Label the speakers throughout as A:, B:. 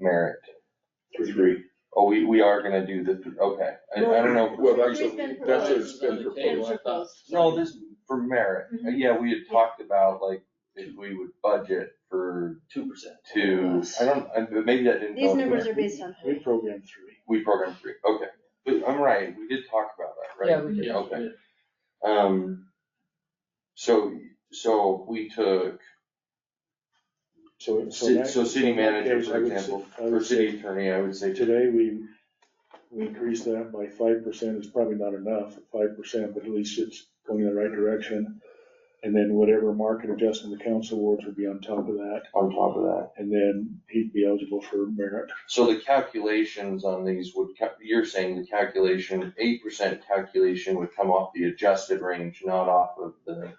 A: Merrick.
B: Three.
A: Oh, we, we are gonna do the, th- okay, I, I don't know. if-
B: Well, that's,
C: Three's
B: a-
C: been
B: that's what's
C: proposed.
B: been
C: Been
B: proposed.
C: proposed.
A: No, this, for merit, Uh, yeah, we had
C: Mhm.
A: talked about like, if we would budget for
D: two percent.
A: two, I don't, I- but maybe that didn't go.
C: These numbers
A: through.
C: are based on.
B: We programmed three.
A: We programmed three, okay, but I'm right, we did talk about that, right?
E: Yeah, we
D: Yeah.
A: Okay. Um, so, so we took,
B: So, so.
A: ci-
B: that-
A: so city
B: in that
A: manager,
B: case, I
A: for
B: would say-
A: example,
B: I would
A: or city
B: say
A: attorney, I would say today.
B: Today, we, we increased that by five percent, it's probably not enough, five percent, but at least it's going in the right direction. And then whatever market adjustment the council awards would be on top of that,
A: on top of that.
B: and then he'd be eligible for merit.
A: So the calculations on these would, ca- you're saying the calculation, eight percent calculation would come off the adjusted range, not off of the,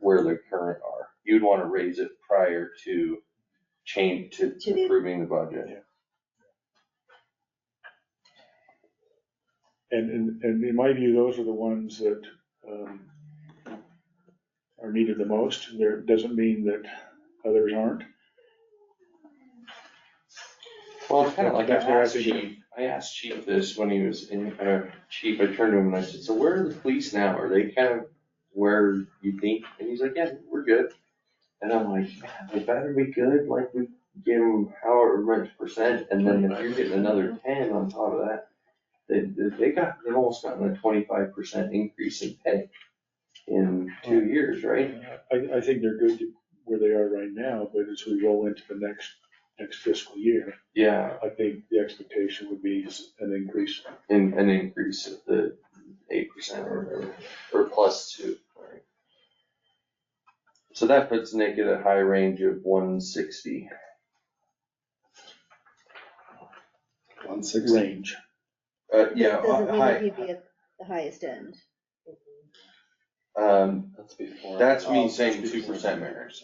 A: where the current are. You'd wanna raise it prior to change, to
C: To the-
A: approving the budget.
B: And, and, and in my view, those are the ones that, um, are needed the most. There, doesn't mean that others aren't.
A: Well, it's kinda like I
B: That's where I
A: asked
B: think it-
A: Chief, I asked Chief this when he was in, uh, Chief, I turned to him and I said, so where are the police now? Are they kind of where you think? And he's like, yeah, we're good. And I'm like, "Man, they better be good, like we gave them however much percent, and then if you're getting another ten on top of that, they, they- they got, they've almost gotten a twenty-five percent increase in pay in two years, right?
B: I, I think they're good to where they are right now, but as we roll into the next, next fiscal year,
A: Yeah,
B: I think the expectation would be s- an increase.
A: in, an increase of the eight percent or whatever, or plus two. right? So that puts Nick at a high range of one sixty.
D: One
B: Range.
A: Uh, yeah,
C: Doesn't mean that
A: high,
C: he'd be at the highest end.
A: um,
D: That's before.
A: Oh, That's me saying 2% merit.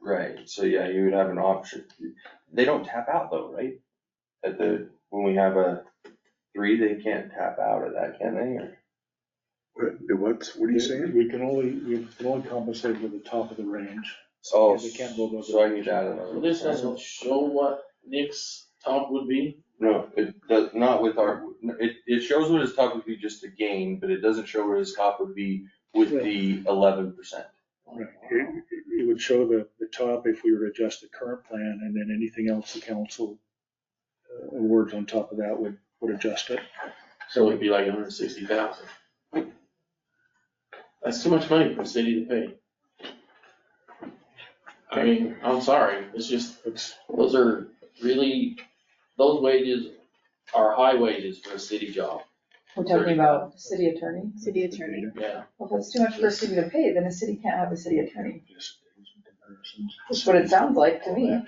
A: right, so yeah, you would have an option. They don't tap out though, right? At the, when we have a three, they can't tap out of that, can they? Or-
F: What, what are you saying?
B: We can only, we can only compensate with the top of the range.
A: Oh,
B: They can't go above the
A: so I need to add
D: So
A: another.
D: this
A: percent.
D: doesn't show what Nick's top would be?
A: No, it does, not with our, it, it shows what his top would be just to gain, but it doesn't show what his top would be with the eleven percent.
B: Right. It, it would show the, the top if we were to adjust the current plan and then anything else the council uh, awards on top of that would, would adjust it.
D: So it'd be like hundred and sixty thousand. That's too much money for the city to pay. I mean, I'm sorry, it's just,
B: It's,
D: those are really, those wages are high wages for a city job,
E: We're talking about city attorney.
C: City attorney.
D: yeah.
E: Well, if it's too much for a city to pay, then a city can't have a city attorney.
B: just comparisons.
E: That's what it sounds like to me.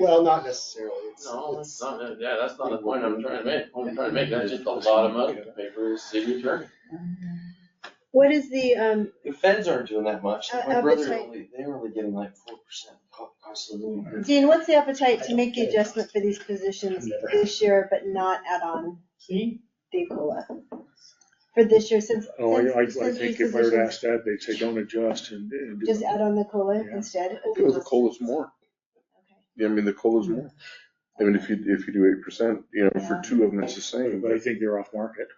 F: Well, not necessarily. It's-
D: No,
F: it's-
D: that's not, yeah, that's not the point I'm trying to make, Point I'm trying to make, that's just a lot of money to pay for a city attorney.
C: What is the, um,
A: The feds aren't doing that much,
C: Uh,
A: my
C: uh,
A: brother,
C: between-
A: only- they're only getting like four percent cost of living.
C: Dean, what's the appetite to make the adjustment for these positions this year, but not add on
D: See?
C: the COLA? For this year, since,
B: Oh, I, I I
C: since, since these
B: think if I were to
C: positions,
B: ask that, they'd say, don't adjust and. and do
C: just
B: it."
C: add on the COLA
B: Yeah.
C: instead?
F: Well, the COLA's more. Yeah, I mean, the COLA's more. I mean, if you, if you do eight percent, you know, for
C: Yeah.
F: two of them, it's the same,
B: But I
F: but
B: think they're off market.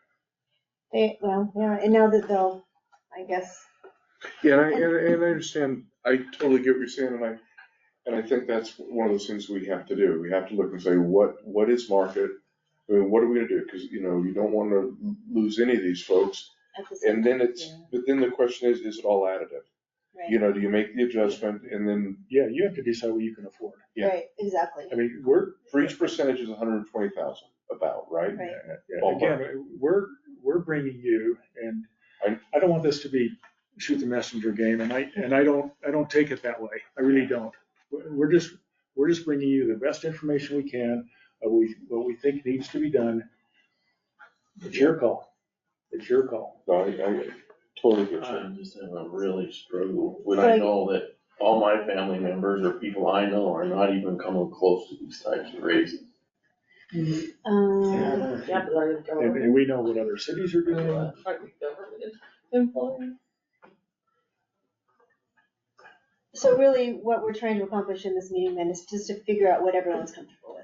C: They, well, yeah, and now that they'll, I guess,
F: yeah, and I, and and I understand, I totally get what you're saying, and I, and I think that's one of those things we have to do. We have to look and say, what, what is market? I mean, what are we gonna do? Cause, you know, you don't wanna lose any of these folks.
C: at the same.
F: And then it's,
C: Yeah.
F: but then the question is, is it all additive? You know, do you make the adjustment and then
B: Yeah, you have to decide what you can afford.
F: yeah.
C: Right, exactly.
F: I mean, we're, for each percentage is hundred and twenty thousand about, right?
C: Right.
F: Ballpark.
B: Again, we're, we're bringing you and
F: I-
B: I don't want this to be shoot the messenger game and I, and I don't, I don't take it that way. I really don't. We're we're just, we're just bringing you the best information we can, of we, what we think needs to be done. It's your call. It's your call.
F: No, I, I totally get
B: uh,
F: you.
D: I just have a really struggle when I
C: Like-
D: know that all my family members or people I know are not even coming close to these types of raises.
C: Um,
E: Yeah, but I'm
B: And, and we know what other cities are doing.
E: government employee.
C: so really, what we're trying to accomplish in this meeting then is just to figure out what everyone's comfortable with.